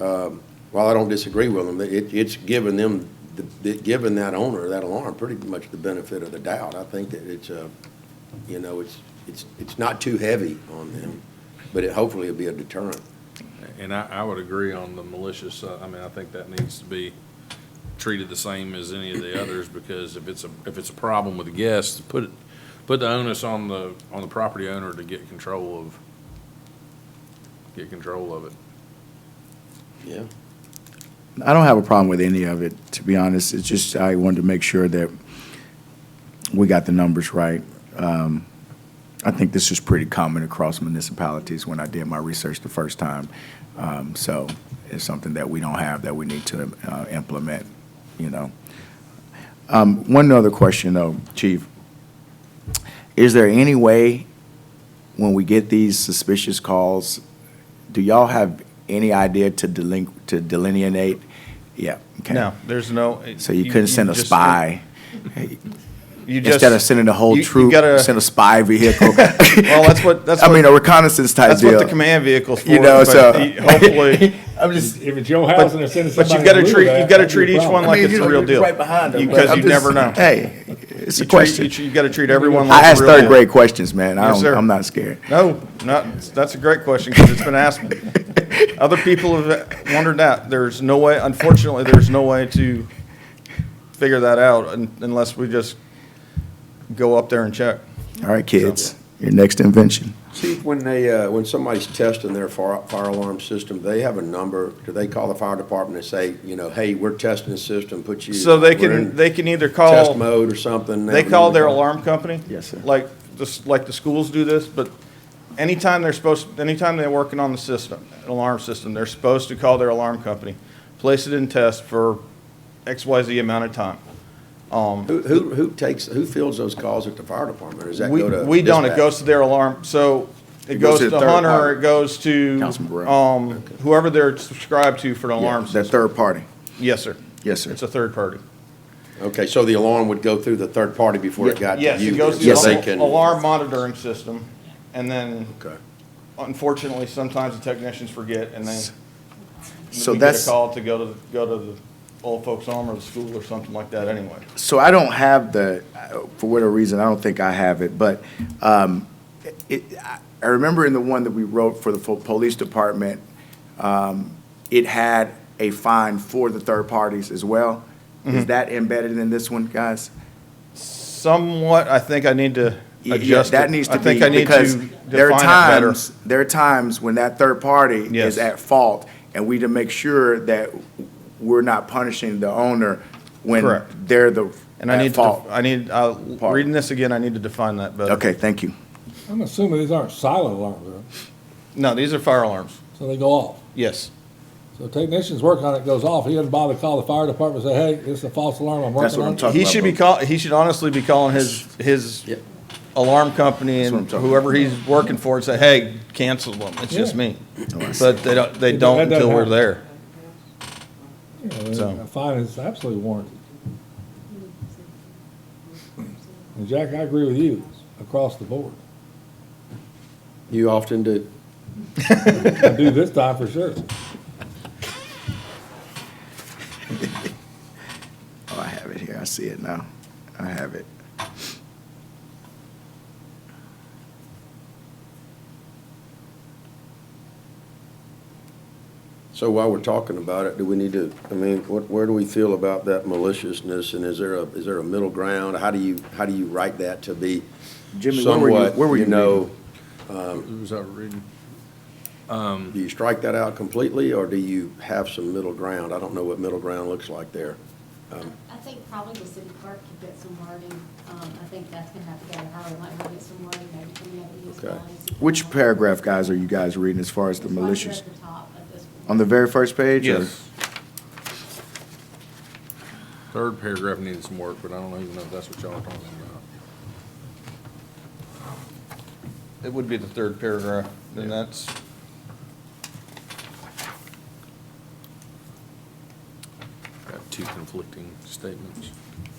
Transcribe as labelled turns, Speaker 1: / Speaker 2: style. Speaker 1: um, while I don't disagree with them, it, it's given them, the- it given that owner, that alarm, pretty much the benefit of the doubt. I think that it's, uh, you know, it's, it's, it's not too heavy on them, but it hopefully will be a deterrent.
Speaker 2: And I, I would agree on the malicious, uh, I mean, I think that needs to be treated the same as any of the others, because if it's a, if it's a problem with the guests, put, it- put the onus on the, on the property owner to get control of, get control of it.
Speaker 1: Yeah.
Speaker 3: I don't have a problem with any of it, to be honest. It's just I wanted to make sure that we got the numbers right. Um, I think this is pretty common across municipalities when I did my research the first time. Um, So it's something that we don't have that we need to uh, implement, you know. Um, One other question, though, Chief. Is there any way, when we get these suspicious calls, do y'all have any idea to delin, to delineate? Yeah, okay.
Speaker 4: No, there's no.
Speaker 3: So you couldn't send a
Speaker 4: just-
Speaker 3: spy?
Speaker 4: You just,
Speaker 3: Instead of sending the whole
Speaker 4: you- you
Speaker 3: troop,
Speaker 4: gotta-
Speaker 3: send a spy vehicle?
Speaker 4: Well, that's what- that's
Speaker 3: I
Speaker 4: what-
Speaker 3: mean, a reconnaissance type
Speaker 4: that's
Speaker 3: deal.
Speaker 4: what the command vehicle's for.
Speaker 3: You know,
Speaker 4: but
Speaker 3: so.
Speaker 4: he- Hopefully,
Speaker 3: I'm just.
Speaker 5: If it's your house and they're sending
Speaker 4: but, but
Speaker 5: somebody.
Speaker 4: you've got to
Speaker 5: blue
Speaker 4: treat,
Speaker 5: back,
Speaker 4: you've got to
Speaker 5: that'd be a
Speaker 4: treat each
Speaker 5: problem.
Speaker 4: one like
Speaker 3: I mean,
Speaker 4: it's
Speaker 3: you
Speaker 4: the
Speaker 3: know,
Speaker 4: real
Speaker 3: you're
Speaker 4: deal.
Speaker 3: right behind them, but
Speaker 4: Because
Speaker 3: I'm
Speaker 4: you never
Speaker 3: just-
Speaker 4: know.
Speaker 3: Hey, it's
Speaker 4: You
Speaker 3: a
Speaker 4: treat-
Speaker 3: question.
Speaker 4: You got to treat everyone like
Speaker 3: I ask
Speaker 4: the real
Speaker 3: third
Speaker 4: deal.
Speaker 3: grade questions, man. I
Speaker 4: Yes,
Speaker 3: don't,
Speaker 4: sir.
Speaker 3: I'm not scared.
Speaker 4: No, not, that's a great question because it's been asked me. Other people have wondered that. There's no way, unfortunately, there's no way to figure that out un- unless we just go up there and check.
Speaker 3: All right, kids, your next invention.
Speaker 1: Chief, when they, uh, when somebody's testing their fire, fire alarm system, they have a number, do they call the fire department and say, you know, hey, we're testing the system, put you.
Speaker 4: So they
Speaker 1: we're
Speaker 4: can,
Speaker 1: in
Speaker 4: they can either call.
Speaker 1: Test mode or something.
Speaker 4: They call their alarm company?
Speaker 3: Yes, sir.
Speaker 4: Like, just like the schools do this, but anytime they're supposed, anytime they're working on the system, an alarm system, they're supposed to call their alarm company, place it in test for XYZ amount of time. Um,
Speaker 1: Who, who, who takes, who fields those calls at the fire department? Does that
Speaker 4: We,
Speaker 1: go to?
Speaker 4: we don't, it
Speaker 1: dispatch?
Speaker 4: goes to their alarm, so it goes to
Speaker 3: the third
Speaker 4: Hunter, or
Speaker 3: party.
Speaker 4: it goes to,
Speaker 3: Councilman Burrell.
Speaker 4: um, whoever they're subscribed to for the alarm
Speaker 3: That
Speaker 4: system.
Speaker 3: third party.
Speaker 4: Yes, sir.
Speaker 3: Yes, sir.
Speaker 4: It's a third party.
Speaker 1: Okay, so the alarm would go through the third party before it got to you?
Speaker 4: Yes, it goes to
Speaker 1: then, so they
Speaker 4: the
Speaker 1: can-
Speaker 4: al- alarm monitoring system, and then
Speaker 1: Okay.
Speaker 4: unfortunately, sometimes the technicians forget and they,
Speaker 3: So
Speaker 4: we get
Speaker 3: that's-
Speaker 4: a call to go to, go to the old folks home or the school or something like that anyway.
Speaker 3: So I don't have the, for whatever reason, I don't think I have it, but um, it, I- I remember in the one that we wrote for the fo- police department, um, it had a fine for the third parties as well.
Speaker 4: Mm-hmm.
Speaker 3: Is that embedded in this one, guys?
Speaker 4: Somewhat, I think I need to
Speaker 3: Yeah, yeah,
Speaker 4: adjust it.
Speaker 3: That needs to
Speaker 4: I think
Speaker 3: be,
Speaker 4: I need
Speaker 3: because
Speaker 4: to
Speaker 3: there are
Speaker 4: define it better.
Speaker 3: times, there are times when that third party
Speaker 4: Yes.
Speaker 3: is at fault, and we to make sure that we're not punishing the owner when
Speaker 4: Correct.
Speaker 3: they're the,
Speaker 4: And I
Speaker 3: at
Speaker 4: need to,
Speaker 3: fault.
Speaker 4: I need, uh,
Speaker 3: Part.
Speaker 4: reading this again, I need to define that better.
Speaker 3: Okay, thank you.
Speaker 5: I'm assuming these aren't silent alarms, though,
Speaker 4: No, these are fire alarms.
Speaker 5: so they go off.
Speaker 4: Yes.
Speaker 5: So technicians work on it, goes off. He doesn't bother to call the fire department, and say, hey, this is a false alarm, I'm
Speaker 3: That's what
Speaker 5: working
Speaker 3: I'm
Speaker 5: on it.
Speaker 3: talking
Speaker 4: He
Speaker 3: about.
Speaker 4: should be
Speaker 3: bro.
Speaker 4: call, he should honestly be calling his, his
Speaker 1: Yep.
Speaker 4: alarm company
Speaker 3: That's what
Speaker 4: and
Speaker 3: I'm talking
Speaker 4: whoever he's working for and say, hey, cancel them. It's just
Speaker 5: Yeah.
Speaker 4: me. But they don't, they
Speaker 5: That
Speaker 4: don't
Speaker 5: doesn't
Speaker 4: until we're
Speaker 5: happen.
Speaker 4: there.
Speaker 5: You know,
Speaker 4: So-
Speaker 5: A fine is absolutely warranted. And Jack, I agree with you, across the board.
Speaker 1: You often do.
Speaker 5: I do this time for sure.
Speaker 3: Oh, I have it here. I see it now. I have it.
Speaker 1: So while we're talking about it, do we need to, I mean, what, where do we feel about that maliciousness? And is there a, is there a middle ground? How do you, how do you write that to be
Speaker 3: Jimmy, where were you-
Speaker 1: somewhat,
Speaker 3: where were
Speaker 1: you
Speaker 3: you
Speaker 1: know?
Speaker 2: Was that reading?
Speaker 1: Do you strike that out completely or do you have some middle ground? I don't know what middle ground looks like there.
Speaker 6: I think probably the city clerk could get some wording. Um, I think that's gonna have to go to her, and let her get some wording, maybe from the other use
Speaker 1: Okay.
Speaker 6: policy.
Speaker 3: Which paragraph, guys, are you guys reading as far as the
Speaker 6: It's right there
Speaker 3: malicious?
Speaker 6: at the top of this one.
Speaker 3: On the very first page? or-
Speaker 2: Third paragraph needed some work, but I don't even know if that's what y'all are talking about.
Speaker 4: It would be the third paragraph, and that's,
Speaker 2: Got two conflicting statements.
Speaker 6: um,